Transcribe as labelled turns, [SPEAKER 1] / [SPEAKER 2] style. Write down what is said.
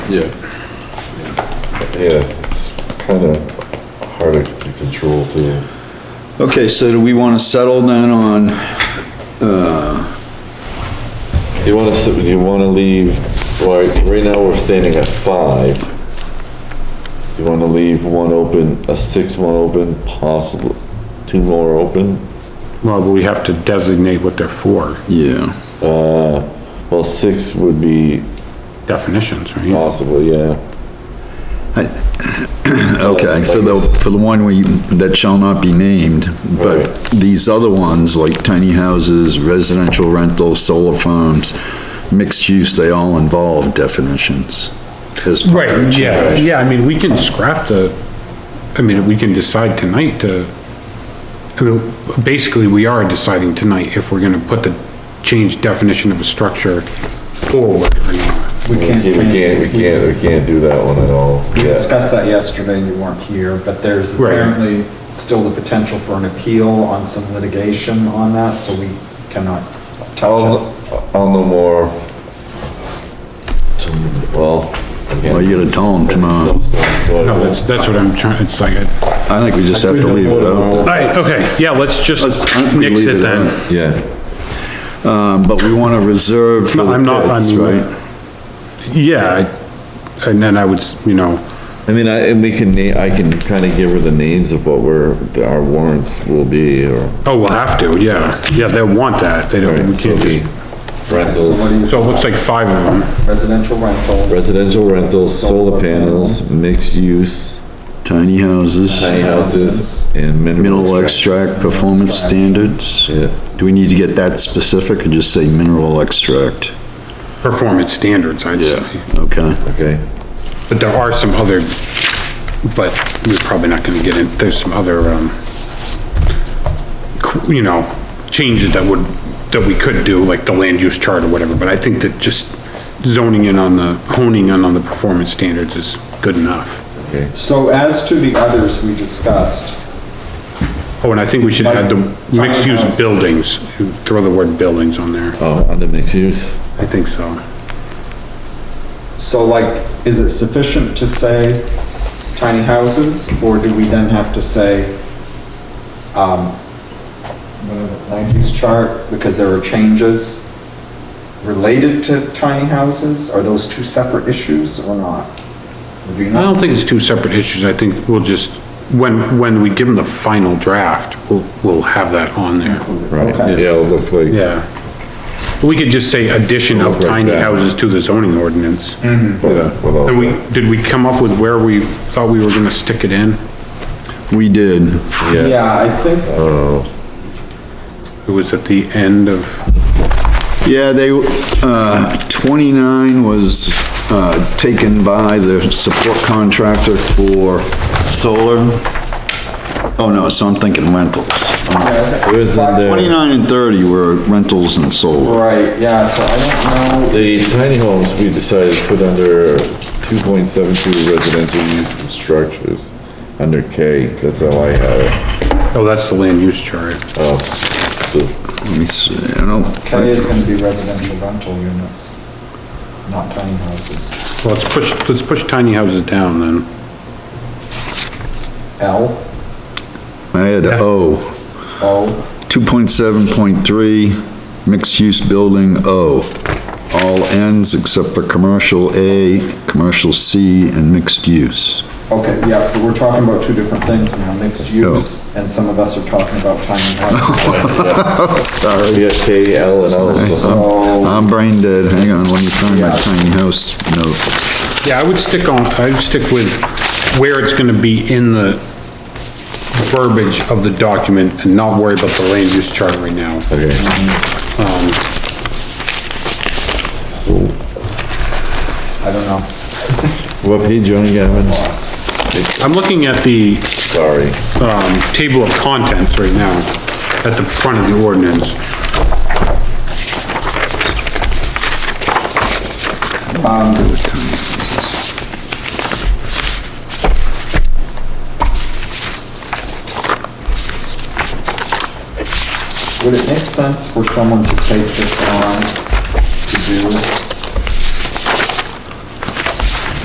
[SPEAKER 1] Yeah,
[SPEAKER 2] Yeah, it's kind of harder to control too.
[SPEAKER 1] okay, so do we wanna settle then on,
[SPEAKER 2] You want to, you want to leave, all right, so right now we're standing at five. You want to leave one open, a six one open, possible, two more open?
[SPEAKER 3] Well, we have to designate what they're for,
[SPEAKER 1] yeah,
[SPEAKER 2] Well, six would be
[SPEAKER 3] definitions, right?
[SPEAKER 2] possible, yeah.
[SPEAKER 1] okay, for the, for the one we, that shall not be named, but these other ones, like tiny houses, residential rentals, solar farms, mixed use, they all involve definitions. as part of the
[SPEAKER 3] Yeah,
[SPEAKER 1] change.
[SPEAKER 3] yeah, I mean, we can scrap the, I mean, we can decide tonight to, I mean, basically, we are deciding tonight if we're gonna put the change definition of a structure forward or not.
[SPEAKER 4] We
[SPEAKER 2] We
[SPEAKER 4] can't,
[SPEAKER 2] can't, we can't, we can't do that one at all,
[SPEAKER 4] we
[SPEAKER 2] yeah.
[SPEAKER 4] discussed that yesterday, you weren't here, but there's
[SPEAKER 3] Right.
[SPEAKER 4] apparently still the potential for an appeal on some litigation on that, so we cannot touch
[SPEAKER 2] I'll, I'll know more. Well. again,
[SPEAKER 1] Well, you gotta tell them tomorrow.
[SPEAKER 2] so-
[SPEAKER 3] No, that's, that's what I'm trying, it's like, I-
[SPEAKER 1] I think we just have to leave it
[SPEAKER 3] all
[SPEAKER 1] out,
[SPEAKER 3] right, okay, yeah, let's just
[SPEAKER 1] Let's- I think we
[SPEAKER 3] nix
[SPEAKER 1] leave
[SPEAKER 3] it
[SPEAKER 1] it
[SPEAKER 3] then.
[SPEAKER 1] out.
[SPEAKER 2] Yeah,
[SPEAKER 1] um, but we wanna reserve for
[SPEAKER 3] not- I'm not-
[SPEAKER 1] the
[SPEAKER 3] I
[SPEAKER 1] kids,
[SPEAKER 3] mean-
[SPEAKER 1] right?
[SPEAKER 3] Yeah, I- and then I would, s- you know,
[SPEAKER 2] I mean, I, and we can, na- I can kind of give her the names of what we're, our warrants will be, or.
[SPEAKER 3] oh, we'll have to, yeah, yeah, they'll want that, they don't, we
[SPEAKER 2] Right, so
[SPEAKER 3] can't
[SPEAKER 2] we-
[SPEAKER 3] just,
[SPEAKER 4] it. So what
[SPEAKER 2] Rentals,
[SPEAKER 4] do you-
[SPEAKER 3] so it looks like five of them.
[SPEAKER 4] Residential rentals,
[SPEAKER 2] residential rentals, solar panels, mixed use,
[SPEAKER 1] Tiny houses,
[SPEAKER 2] tiny houses, and
[SPEAKER 1] mineral
[SPEAKER 2] mineral. extract.
[SPEAKER 1] extract performance standards.
[SPEAKER 2] Yeah.
[SPEAKER 1] Do we need to get that specific or just say mineral extract?
[SPEAKER 3] performance standards, I'd say.
[SPEAKER 1] Okay,
[SPEAKER 2] Okay,
[SPEAKER 3] But there are some other, but we're probably not gonna get in, there's some other, um, qu- you know, changes that would, that we could do, like the land use chart or whatever, but I think that just zoning in on the, honing in on the performance standards is good enough.
[SPEAKER 2] okay.
[SPEAKER 4] so as to the others we discussed,
[SPEAKER 3] Oh, and I think we should add the mixed-use buildings, throw the word buildings on there,
[SPEAKER 2] Oh, under mixed use?
[SPEAKER 3] I think so.
[SPEAKER 4] so like, is it sufficient to say tiny houses, or do we then have to say, um, whatever, land use chart, because there are changes related to tiny houses? Are those two separate issues or not? Or do you
[SPEAKER 3] I
[SPEAKER 4] not?
[SPEAKER 3] don't think it's two separate issues, I think we'll just, when, when we give them the final draft, we'll, we'll have that on there.
[SPEAKER 2] Right,
[SPEAKER 4] Okay.
[SPEAKER 2] yeah, it'll look like.
[SPEAKER 3] Yeah. We could just say addition of
[SPEAKER 2] Right
[SPEAKER 3] tiny
[SPEAKER 2] there.
[SPEAKER 3] houses to the zoning ordinance.
[SPEAKER 2] Yeah. without-
[SPEAKER 3] And we, did we come up with where we thought we were gonna stick it in?
[SPEAKER 1] we did.
[SPEAKER 2] Yeah,
[SPEAKER 4] Yeah, I think,
[SPEAKER 3] It was at the end of,
[SPEAKER 1] Yeah, they, uh, twenty-nine was, uh, taken by the support contractor for solar. Oh, no, so I'm thinking rentals. Uh,
[SPEAKER 2] it was in there.
[SPEAKER 1] Twenty-nine and thirty were rentals and solar.
[SPEAKER 4] right, yeah, so I don't know.
[SPEAKER 2] The tiny homes, we decided to put under two point seven two residential use of structures, under K, that's how I had it.
[SPEAKER 3] oh, that's the land use chart.
[SPEAKER 2] Oh, so-
[SPEAKER 1] Let me see, I don't,
[SPEAKER 4] K is gonna be residential rental units, not tiny houses.
[SPEAKER 3] Well, Let's push, let's push tiny houses down then.
[SPEAKER 4] L,
[SPEAKER 1] I had O.
[SPEAKER 4] O,
[SPEAKER 1] 2.7.3, mixed-use building O. All ends except for commercial A, commercial C, and mixed use.
[SPEAKER 4] okay, yeah, but we're talking about two different things now, mixed use, and some of us are talking about tiny houses.
[SPEAKER 1] Sorry.
[SPEAKER 2] We got oh, K, L, and L, so-
[SPEAKER 4] So,
[SPEAKER 1] I'm brain dead, hang on, let me find my tiny house note.
[SPEAKER 3] Yeah, I would stick on, I'd stick with where it's gonna be in the verbiage of the document and not worry about the land use chart right now.
[SPEAKER 2] okay.
[SPEAKER 4] I don't know.
[SPEAKER 2] What page you on, Gavin?
[SPEAKER 3] I'm looking at the,
[SPEAKER 2] Sorry.
[SPEAKER 3] um, table of contents right now, at the front of the ordinance.
[SPEAKER 4] Would it make sense for someone to take this on to do